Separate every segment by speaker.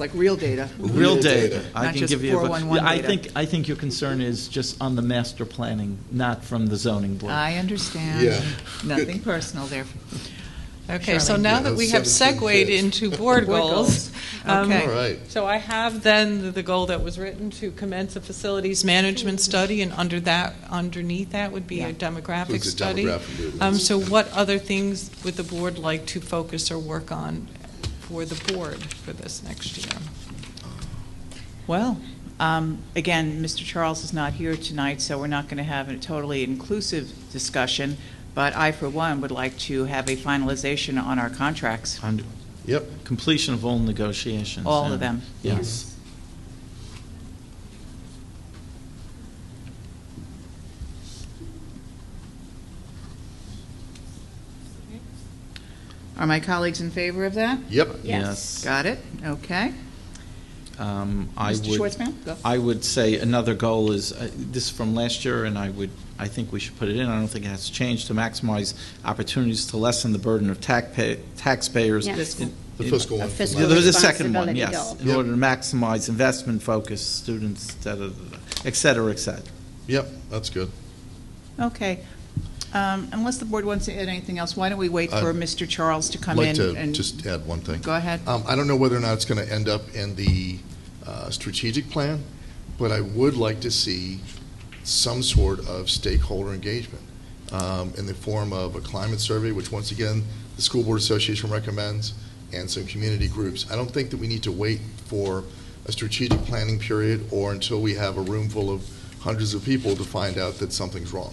Speaker 1: like real data.
Speaker 2: Real
Speaker 3: Real
Speaker 2: data.
Speaker 3: data.
Speaker 2: I
Speaker 1: Not
Speaker 2: can
Speaker 1: just
Speaker 2: give you. a-
Speaker 1: 411
Speaker 2: Yeah, I
Speaker 1: data.
Speaker 2: think, I think your concern is just on the master planning, not from the zoning board.
Speaker 4: Uh,
Speaker 1: I understand.
Speaker 3: Yeah.
Speaker 1: Nothing personal there.
Speaker 5: Okay, so
Speaker 1: Charlene.
Speaker 5: now
Speaker 3: Yeah,
Speaker 5: that we
Speaker 3: those
Speaker 5: have
Speaker 3: 17
Speaker 5: segued
Speaker 3: kids.
Speaker 5: into
Speaker 1: Board
Speaker 5: board goals.
Speaker 1: goals.
Speaker 5: um,
Speaker 1: Okay.
Speaker 3: All right.
Speaker 5: So I have then the- the goal that was written to commence a facilities management study, and under that, underneath that would be
Speaker 1: Yeah.
Speaker 5: a demographic
Speaker 3: Includes the
Speaker 5: study.
Speaker 3: demographic movements.
Speaker 5: Um, So what other things would the board like to focus or work on for the board for this next year?
Speaker 4: Well, um, again, Mr. Charles is not here tonight, so we're not going to have a totally inclusive discussion, but I, for one, would like to have a finalization on our contracts.
Speaker 2: On
Speaker 3: Yep.
Speaker 2: Completion of all negotiations.
Speaker 4: All of
Speaker 2: and-
Speaker 4: them.
Speaker 2: Yes.
Speaker 4: Are my colleagues in favor of that?
Speaker 3: Yep.
Speaker 2: Yes.
Speaker 4: Got it? Okay.
Speaker 2: Um, I
Speaker 4: Mr.
Speaker 2: would-
Speaker 4: Schwartzman, go.
Speaker 2: I would say another goal is, uh, this is from last year, and I would, I think we should put it in, I don't think it has changed, to maximize opportunities to lessen the burden of tac- pay- taxpayers.
Speaker 6: Yes.
Speaker 2: in- in-
Speaker 3: The fiscal one.
Speaker 6: Fiscal
Speaker 2: Yeah, There's a second one,
Speaker 6: responsibility
Speaker 2: yes,
Speaker 6: goal.
Speaker 2: in
Speaker 3: Yep.
Speaker 2: order to maximize investment focus, students, da, da, da, da, et cetera, et cetera.
Speaker 3: Yep, that's good.
Speaker 4: Okay. Um, Unless the board wants to add anything else, why don't we wait for
Speaker 3: I'd
Speaker 4: Mr. Charles to
Speaker 3: Uh, I'd
Speaker 4: come in?
Speaker 3: like to
Speaker 4: and-
Speaker 3: just add one thing.
Speaker 4: Go ahead.
Speaker 3: Um, I don't know whether or not it's going to end up in the uh, strategic plan, but I would like to see some sort of stakeholder engagement um, in the form of a climate survey, which once again, the School Board Association recommends, and some community groups. I don't think that we need to wait for a strategic planning period or until we have a room full of hundreds of people to find out that something's wrong,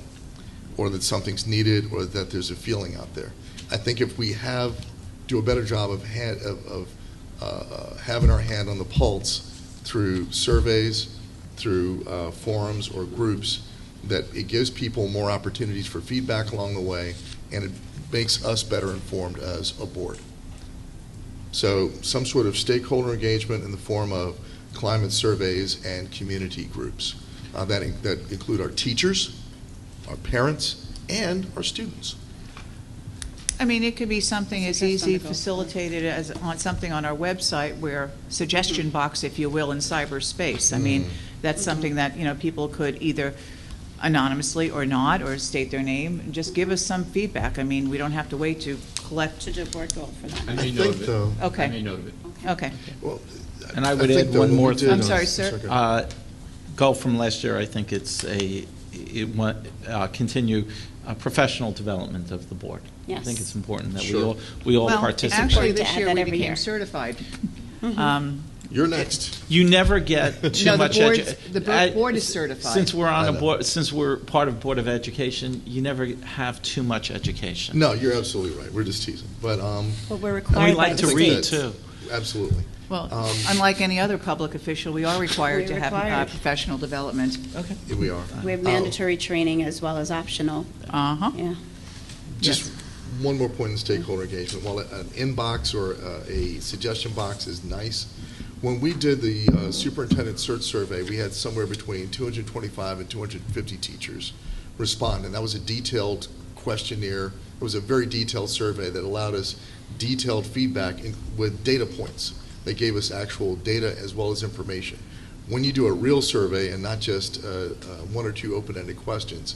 Speaker 3: or that something's needed, or that there's a feeling out there. I think if we have do a better job of, hand, of, of uh, having our hand on the pulse through surveys, through uh, forums or groups, that it gives people more opportunities for feedback along the way, and it makes us better informed as a board. So some sort of stakeholder engagement in the form of climate surveys and community groups uh, that, in- that include our teachers, our parents, and our students.
Speaker 4: I mean, it could be something as
Speaker 6: Suggest on
Speaker 4: easy
Speaker 6: the go.
Speaker 4: facilitated as on something on our website where suggestion box, if you will, in cyberspace. I mean, that's something that, you know, people could either anonymously or not, or state their name, and just give us some feedback. I mean, we don't have to wait to collect,
Speaker 6: To do a board goal for
Speaker 7: I
Speaker 6: that.
Speaker 7: made
Speaker 3: I
Speaker 7: note
Speaker 3: think,
Speaker 7: of it.
Speaker 3: though-
Speaker 7: I
Speaker 4: Okay.
Speaker 7: made
Speaker 2: uh,
Speaker 7: note of it.
Speaker 4: okay.
Speaker 3: Well,
Speaker 2: And I would
Speaker 3: think
Speaker 2: add
Speaker 3: that
Speaker 2: one
Speaker 3: what we
Speaker 2: more
Speaker 3: did
Speaker 2: thing.
Speaker 4: I'm
Speaker 3: on-
Speaker 4: sorry, sir.
Speaker 3: go ahead.
Speaker 2: Uh, Goal from last year, I think it's a, it wa- uh, continue uh, professional development of the board. I think
Speaker 6: Yes.
Speaker 2: it's important that we
Speaker 3: Sure.
Speaker 2: all, we all
Speaker 4: Well, actually,
Speaker 2: participate.
Speaker 6: To
Speaker 4: this
Speaker 6: add
Speaker 4: year
Speaker 6: that
Speaker 4: we
Speaker 6: every
Speaker 4: became
Speaker 6: year. Mm-hmm.
Speaker 4: certified. Um,
Speaker 3: You're next.
Speaker 2: You never get
Speaker 4: No,
Speaker 2: too
Speaker 4: the
Speaker 2: much. edu-
Speaker 4: board's- the bo-
Speaker 2: I-
Speaker 4: board is certified.
Speaker 2: Since we're on
Speaker 3: I
Speaker 2: a
Speaker 3: know.
Speaker 2: board, since we're part of Board of Education, you never have too much education.
Speaker 3: No, you're absolutely right. We're just teasing, but um,
Speaker 6: Well, we're
Speaker 2: And we
Speaker 6: required by
Speaker 2: like
Speaker 6: the
Speaker 2: to
Speaker 6: state.
Speaker 2: read, too.
Speaker 3: absolutely.
Speaker 4: Well,
Speaker 3: Um,
Speaker 4: unlike any other public official, we are required
Speaker 6: We're
Speaker 4: to have uh,
Speaker 6: required.
Speaker 4: professional development.
Speaker 2: Okay.
Speaker 3: Here we are.
Speaker 6: We have mandatory training as well as optional,
Speaker 4: Uh-huh.
Speaker 6: yeah.
Speaker 3: Um, Just one more point in stakeholder engagement. While an inbox or uh, a suggestion box is nice, when we did the uh, superintendent search survey, we had somewhere between 225 and 250 teachers respond, and that was a detailed questionnaire. It was a very detailed survey that allowed us detailed feedback in- with data points. They gave us actual data as well as information. When you do a real survey and not just uh, uh, one or two open-ended questions,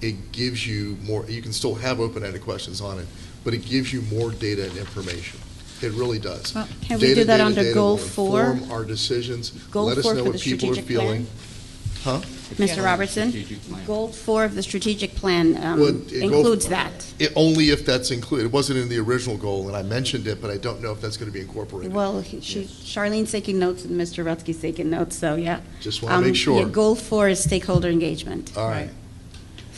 Speaker 3: it gives you more, you can still have open-ended questions on it, but it gives you more data and information. It really does.
Speaker 4: Well,
Speaker 6: can we
Speaker 3: Data,
Speaker 6: do that
Speaker 3: data,
Speaker 6: under
Speaker 3: data
Speaker 6: goal
Speaker 3: will
Speaker 6: four?
Speaker 3: inform our decisions.
Speaker 6: Goal
Speaker 3: Let us
Speaker 6: four
Speaker 3: know
Speaker 6: for
Speaker 3: what
Speaker 6: the
Speaker 3: people are
Speaker 6: strategic plan?
Speaker 3: feeling. Huh?
Speaker 6: Mr. Robertson,
Speaker 7: Strategic plan.
Speaker 6: goal four of the strategic plan um,
Speaker 3: Well, it- it go-
Speaker 6: includes that.
Speaker 3: It, only if that's included. It wasn't in the original goal, and I mentioned it, but I don't know if that's going to be incorporated.
Speaker 6: Well, he- she- Charlene's taking notes and Mr. Rutsky's taking notes, so yeah.
Speaker 3: Just wanna
Speaker 6: Um,
Speaker 3: make sure. Uh,
Speaker 6: yeah, Goal four is stakeholder engagement,
Speaker 3: All right,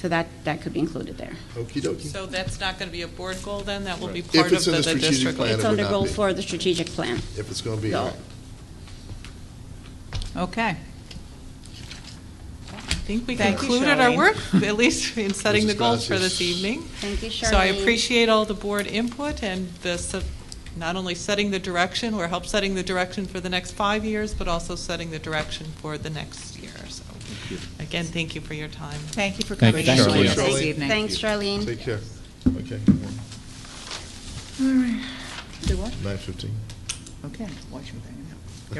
Speaker 6: so that, that could be included there.
Speaker 3: okey dokey.
Speaker 5: So that's not going to be a board goal then? That will be
Speaker 3: If
Speaker 5: part of
Speaker 3: it's in
Speaker 5: the
Speaker 3: the
Speaker 5: the
Speaker 3: strategic
Speaker 5: district
Speaker 3: plan,
Speaker 5: goal?
Speaker 3: it
Speaker 6: It's
Speaker 3: would
Speaker 6: under
Speaker 3: not
Speaker 6: goal
Speaker 3: be.
Speaker 6: four of the strategic plan.
Speaker 3: If it's going to be,
Speaker 6: Goal.
Speaker 3: all right.
Speaker 4: Okay.
Speaker 5: I think we
Speaker 4: Thank you,
Speaker 5: concluded our
Speaker 4: Charlene.
Speaker 5: work, at least in setting
Speaker 3: Mrs.
Speaker 5: the goals for
Speaker 3: Gracias.
Speaker 5: this evening.
Speaker 6: Thank you, Charlene.
Speaker 5: So I appreciate all the board input and the, se- not only setting the direction, or help setting the direction for the next five years, but also setting the direction for the next year, so. Again, thank you for your time.
Speaker 4: Thank you for
Speaker 2: Thank you,
Speaker 4: coming in
Speaker 2: Charlene.
Speaker 4: this
Speaker 3: Thank you.
Speaker 4: evening.
Speaker 6: Thanks, Charlene.
Speaker 3: Take care. Okay.
Speaker 4: Do what?
Speaker 3: Nine fifteen.
Speaker 4: Okay, watch your back.